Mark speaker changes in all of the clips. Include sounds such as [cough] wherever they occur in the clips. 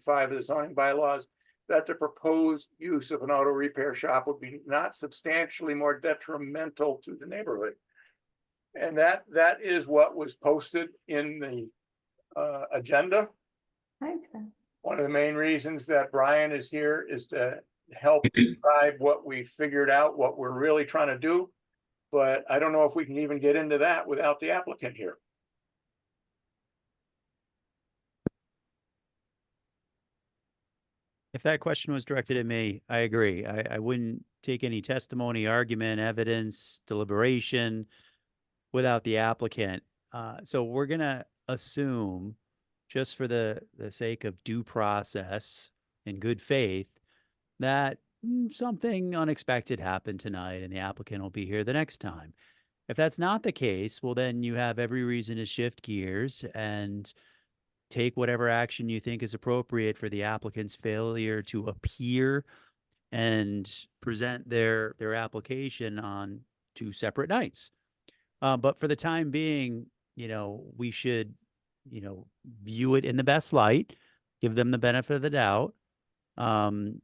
Speaker 1: five of the zoning bylaws that the proposed use of an auto repair shop would be not substantially more detrimental to the neighborhood. And that, that is what was posted in the uh, agenda.
Speaker 2: Right.
Speaker 1: One of the main reasons that Brian is here is to help describe what we figured out, what we're really trying to do. But I don't know if we can even get into that without the applicant here.
Speaker 3: If that question was directed at me, I agree. I, I wouldn't take any testimony, argument, evidence, deliberation without the applicant. Uh, so we're gonna assume, just for the, the sake of due process and good faith, that mm, something unexpected happened tonight and the applicant will be here the next time. If that's not the case, well, then you have every reason to shift gears and take whatever action you think is appropriate for the applicant's failure to appear and present their their application on two separate nights. Uh, but for the time being, you know, we should, you know, view it in the best light, give them the benefit of the doubt. Um,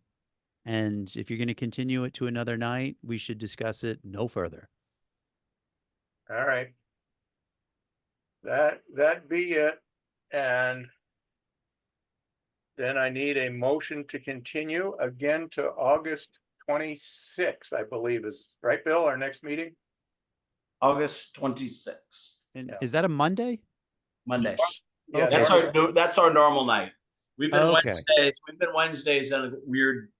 Speaker 3: and if you're going to continue it to another night, we should discuss it no further.
Speaker 1: All right. That, that be it, and. Then I need a motion to continue again to August twenty-sixth, I believe is, right, Bill, our next meeting?
Speaker 4: August twenty-sixth,
Speaker 3: And
Speaker 1: Yeah.
Speaker 3: is that a Monday?
Speaker 4: Monday.
Speaker 1: Yeah,
Speaker 4: That's
Speaker 1: that-
Speaker 4: our, no- that's our normal night. We've been
Speaker 3: Okay.
Speaker 4: Wednesdays, we've been Wednesdays at a weird,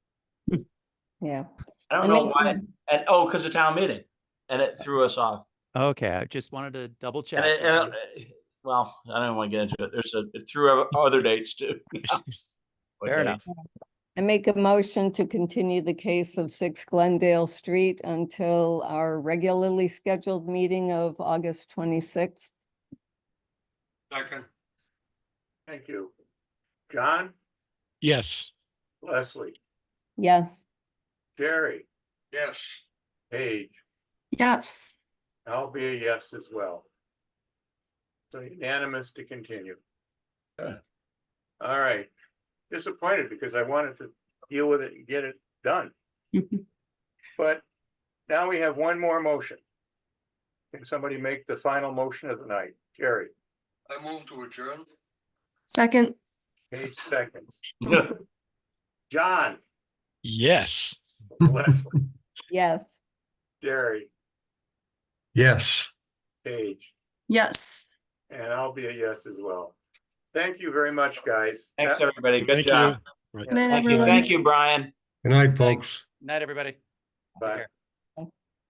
Speaker 2: Yeah.
Speaker 4: I
Speaker 2: I um,
Speaker 4: don't know
Speaker 2: make-
Speaker 4: why, and, oh, because of town meeting. And it threw us off.
Speaker 3: Okay, I just wanted to double check.
Speaker 4: And it,
Speaker 3: with
Speaker 4: and
Speaker 3: you.
Speaker 4: it- well, I don't want to get into it. There's a, it threw our other dates too. [laughs]
Speaker 3: Fair enough.
Speaker 2: I make a motion to continue the case of six Glendale Street until our regularly scheduled meeting of August twenty-sixth.
Speaker 5: Second,
Speaker 1: Thank you. John,
Speaker 6: Yes,
Speaker 1: Leslie,
Speaker 2: Yes,
Speaker 1: Jerry,
Speaker 5: yes,
Speaker 1: Paige,
Speaker 7: Yes,
Speaker 1: I'll be a yes as well. So unanimous to continue. All right, disappointed because I wanted to deal with it and get it done. But now we have one more motion. Can somebody make the final motion of the night? Jerry,
Speaker 5: I move to adjourn.
Speaker 7: second,
Speaker 1: Page seconds.
Speaker 4: enough.
Speaker 1: John,
Speaker 6: yes.
Speaker 1: Leslie,
Speaker 2: yes.
Speaker 1: Jerry,
Speaker 5: Yes.
Speaker 1: Page,
Speaker 7: yes.
Speaker 1: and I'll be a yes as well. Thank you very much, guys.
Speaker 4: [laughs] Thanks,
Speaker 1: That-
Speaker 4: everybody. Good
Speaker 6: Thank you.
Speaker 4: job.
Speaker 6: Right.
Speaker 7: Good night,
Speaker 4: Thank you,
Speaker 7: everyone.
Speaker 4: thank you, Brian.
Speaker 5: Good night,
Speaker 3: Thanks.
Speaker 5: folks.
Speaker 3: Night, everybody.
Speaker 1: Bye.
Speaker 3: care.